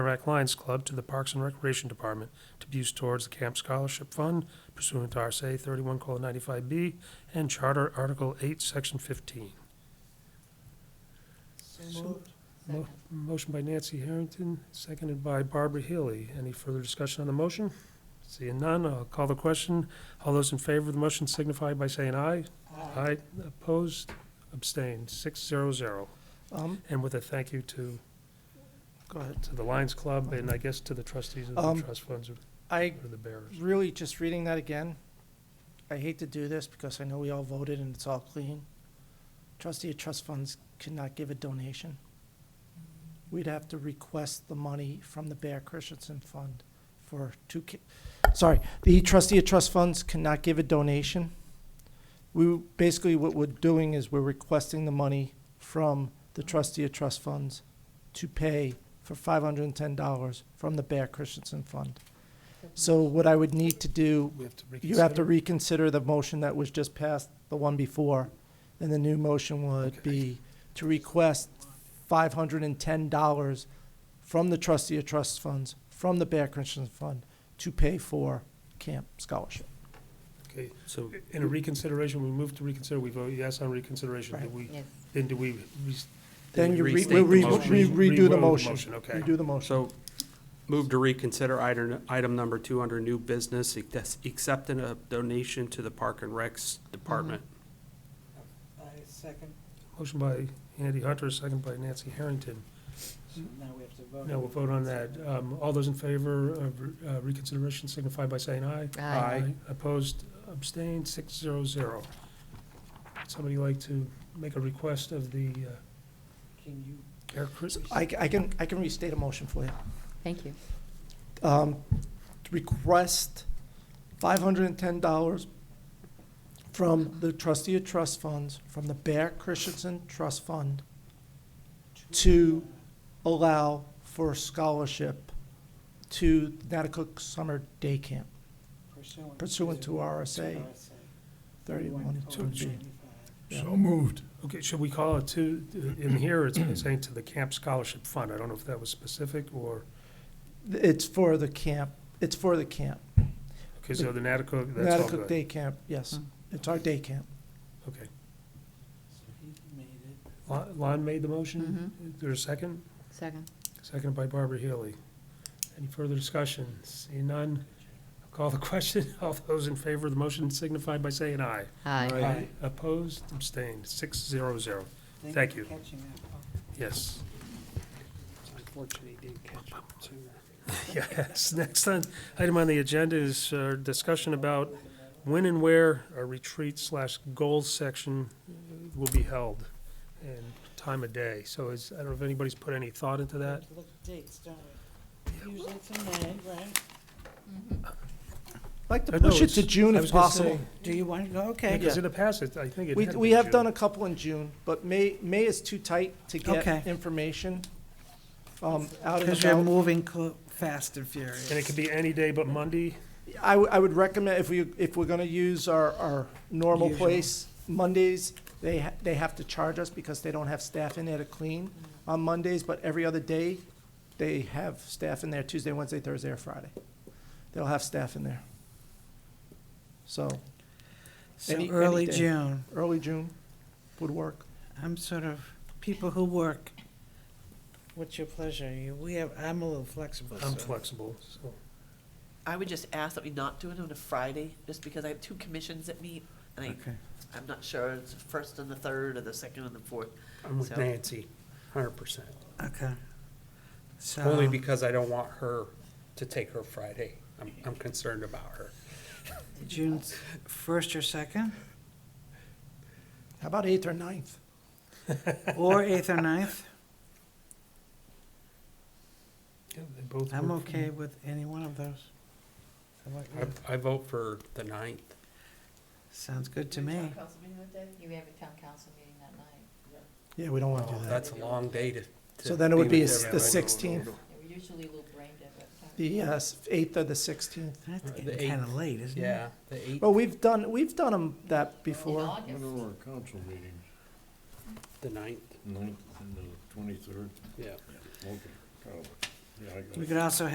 Merrimack Lions Club to the Parks and Recreation Department to be used towards the Camp Scholarship Fund pursuant to RSA thirty-one ninety-five B and Charter Article eight, Section fifteen. So moved. Mo- Second. Motion by Nancy Harrington, seconded by Barbara Healy. Any further discussion on the motion? Seeing none, I'll call the question. All those in favor of the motion signify by saying aye. Aye. Opposed, abstained, six zero zero. Um, And with a thank you to, go ahead. to the Lions Club and I guess to the trustees of Um, the trust funds or I or the bearers. really, just reading that again, I hate to do this because I know we all voted and it's all clean. Trustee of trust funds could not give a donation. We'd have to request the money from the Bear Christensen Fund for two ki- sorry, the trustee of trust funds cannot give a donation. We, basically what we're doing is we're requesting the money from the trustee of trust funds to pay for five hundred and ten dollars from the Bear Christensen Fund. So what I would need to do, We have to you have to reconsider the motion that was just passed, the one before. And the new motion would be to request five hundred and ten dollars from the trustee of trust funds, from the Bear Christensen Fund, to pay for camp scholarship. Okay, So, in a reconsideration, we move to reconsider, we vote yes on reconsideration, do Right. we, Yes. then do we? re- Then we you re- restate we the re- motion. we redo the Revote motion. Okay, Redo the motion. so move to reconsider item, item number two under new business, ex- accepting a donation to the Park and Recs Department. I second, motion by Andy Hunter, second by Nancy Harrington. now we have to vote. Now we'll vote on that. Um, all those in favor of re- uh, reconsideration signify by saying aye. Aye. Opposed, abstained, six zero zero. Somebody like to make a request of the, uh, Can you, Bear Chris? I, I can, I can restate a motion for you. Thank you. um, request five hundred and ten dollars from the trustee of trust funds, from the Bear Christensen Trust Fund, to allow for scholarship to Natticook Summer Day Camp pursuant. pursuant to RSA RSA thirty-one two, two G. 1,095. So moved. Okay, should we call it to, in here, it's saying to the Camp Scholarship Fund. I don't know if that was specific or, It's for the camp, it's for the camp. okay, so the Natticook, that's all Natticook good. Day Camp, yes, Mm. it's our day camp. Okay. So he made it. Lon Lon made the motion. Is there a second? Second. Second by Barbara Healy. Any further discussion? Seeing none, I'll call the question. All those in favor of the motion signify by saying aye. Aye. Aye. Opposed, abstained, six zero zero. Thank you. for Catching that, Paul. Yes. It's unfortunate he didn't catch it sooner. Yes, next on- item on the agenda is uh, discussion about when and where a retreat slash goals section uh, will be held and time of day. So is, I don't know if anybody's put any thought into We that. have to Look at dates, don't we? Usually it's in May, right? Mm-hmm. I'd Like to I know, push it to it's- June I if was gonna possible. say, Do you want to go? Yeah, Okay. because in the past, it- I think it We, had we been have done a June. couple in June, but May, May is too tight to Okay. get information, um, out and Because you're about. moving cl- fast and furious. And it could be any day but Monday. I, would- I would recommend, if we, if we're gonna use our, our normal Usual. place, Mondays, they, ha- they have to charge us because they don't have staff in there to clean on Mondays, but every other day, they have staff in there, Tuesday, Wednesday, Thursday, or Friday. They'll have staff in there. So, So any- any early day. June, early June would work. I'm sort of, people who work, what's your pleasure? You- We have, I'm a little flexible. I'm so- flexible, so. I would just ask that we not do it on a Friday, just because I have two commissions that meet, and I, Okay. I'm not sure, it's the first and the third, or the second and the fourth. Mm-hmm. I'm with So- Nancy, hundred percent. Okay. So. Only because I don't want her to take her Friday. I'm, I'm concerned about her. June s- first or second, How about eighth or ninth? or eighth or ninth. yeah, they both I'm work for me. okay with any one of those. How about you? I, I vote for the ninth. Sounds good to me. You have a town council meeting that night. Yeah, we don't wanna do that. That's a long day to. to So then it would be with the everyone. 16th, We usually will brain dead at that the uh, 8th or the 16th. That's Uh, the getting kind of late, isn't it? Yeah, the eighth, Well, we've done, we've done 'em that before. When are our council meetings? the ninth, Ninth and the twenty-third? yeah. Okay. Yeah, I got it. We could also